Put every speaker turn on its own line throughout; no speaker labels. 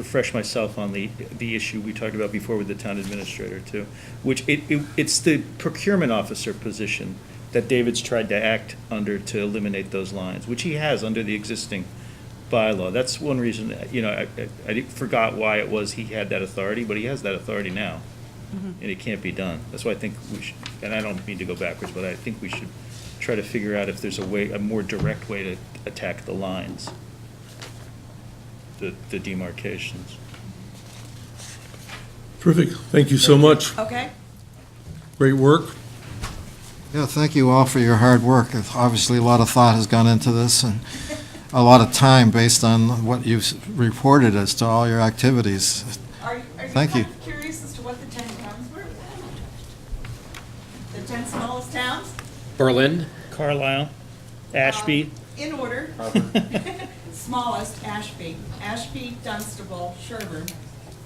refresh myself on the, the issue we talked about before with the town administrator too, which it, it, it's the procurement officer position that David's tried to act under to eliminate those lines, which he has under the existing bylaw. That's one reason, you know, I, I, I forgot why it was he had that authority, but he has that authority now. And it can't be done. That's why I think we should, and I don't mean to go backwards, but I think we should try to figure out if there's a way, a more direct way to attack the lines the, the demarcations.
Terrific. Thank you so much.
Okay,
Great work.
Yeah, thank you all for your hard work. It's Obviously, a lot of thought has gone into this and a lot of time based on what you've s- reported as to all your activities.
are you, are you
Thank
kind
you.
of curious as to what the ten towns were? The ten smallest towns?
Berlin,
Carlisle, Ashby,
In order. Smallest, Ashby, Ashby, Dunstable, Sherburne,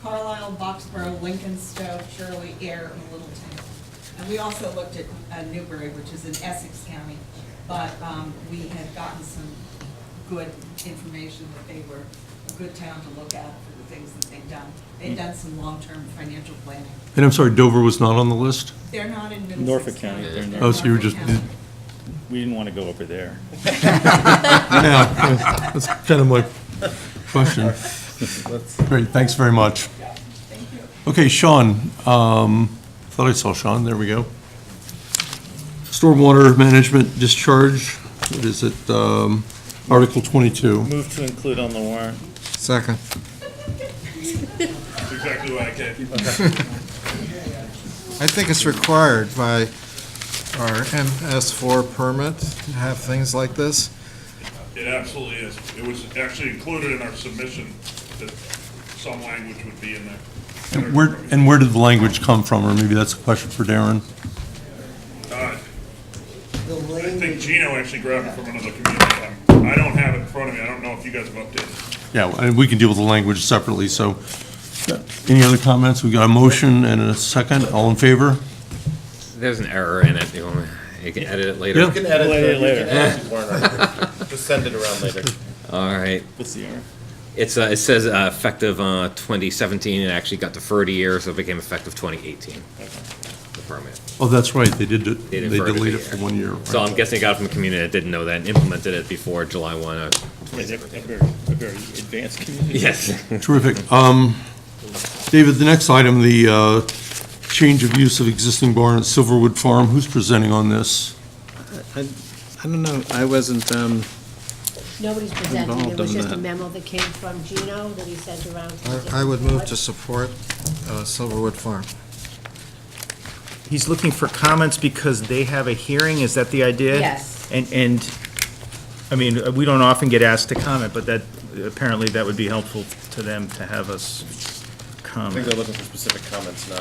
Carlisle, Boxborough, Lincoln, Stowe, Shirley, Air, and Littleton. And we also looked at uh, Newbury, which is in Essex County, but um, we had gotten some good information that they were a good town to look at for the things that they've done. They've done some long-term financial planning.
And I'm sorry, Dover was not on the list?
They're not in Middlesex County.
Norfolk County, they're in
They're
Oh, so you were just,
Norfolk County.
we didn't want to go over there.
yeah, that's kind of my question. Great, thanks very much.
Thank you.
Okay, Sean, um, thought I saw Sean, there we go. Stormwater management discharge, what is it, um, Article 22?
Move to include on the warrant.
Second.
exactly what I did.
I think it's required by our MS4 permit to have things like this.
It absolutely is. It was actually included in our submission that some language would be in there.
And where, and where did the language come from, or maybe that's a question for Darren?
Uh, I think Gino actually grabbed it from another community. I'm- I don't have it in front of me. I don't know if you guys have updated.
Yeah, and we can deal with the language separately, so, any other comments? We got a motion and a second, all in favor?
there's an error in it, you want, you can edit it later.
Yeah.
You can edit
We'll edit it
the- you
later.
can edit the warrant article. Just send it around later.
All right,
What's the error?
it's, uh, it says uh, effective, uh, twenty seventeen, it actually got deferred a year, so it became effective twenty eighteen. The permit.
Oh, that's right, they did,
They
they
deferred it a
delayed it
year.
for one year. right.
So I'm guessing it got it from the community that didn't know that and implemented it before July one uh, of
Yeah,
twenty
they're a
seventeen.
very, a very advanced community.
Yes.
Terrific. Um, David, the next item, the uh, change of use of existing barn at Silverwood Farm, who's presenting on this?
I don't know, I wasn't, um,
Nobody's presenting, it
Involved
was
in
just a
that.
memo that came from Gino that he sent around. to the
I- I would move
different
to support uh, Silverwood Farm.
He's looking for comments because they have a hearing, is that the idea?
Yes.
And, and, I mean, we don't often get asked to comment, but that, apparently that would be helpful to them to have us
I think
comment.
they're looking for specific comments, not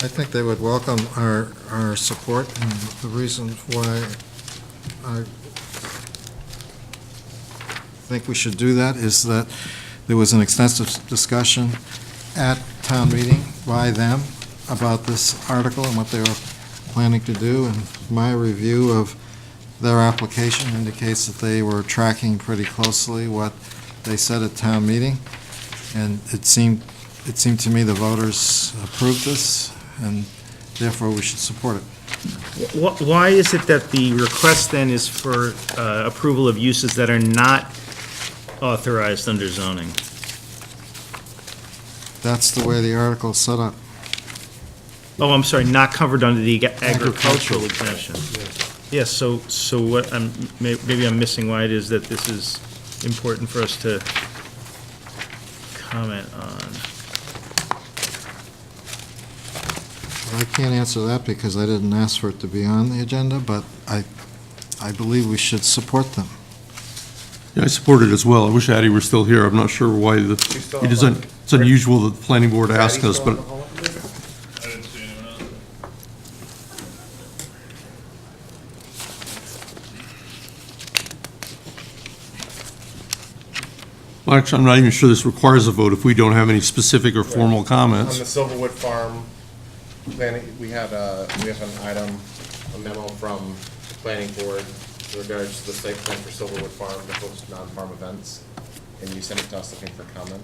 I think they would welcome our, our support and the reason why I think we should do that is that there was an extensive discussion at town meeting by them about this article and what they were planning to do, and my review of their application indicates that they were tracking pretty closely what they said at town meeting, and it seemed, it seemed to me the voters approved this, and therefore we should support it.
Wh- Why is it that the request then is for uh, approval of uses that are not authorized under zoning?
That's the way the article is set up.
Oh, I'm sorry, not covered under the agricultural exemption. Yes, so, so what, I'm, may- maybe I'm missing why it is that this is important for us to comment on.
I can't answer that because I didn't ask for it to be on the agenda, but I, I believe we should support them.
Yeah, I support it as well. I wish Addie were still here. I'm not sure why the,
still
it
on
is un- it's unusual that the planning board asked us, but
I didn't see anyone else.
well, actually, I'm not even sure this requires a vote if we don't have any specific or formal
on
comments.
the Silverwood Farm. Planning, we had a, we have an item, a memo from the planning board in regards to the site plan for Silverwood Farm, that hosts non-farm events. And you sent it to us looking for comment.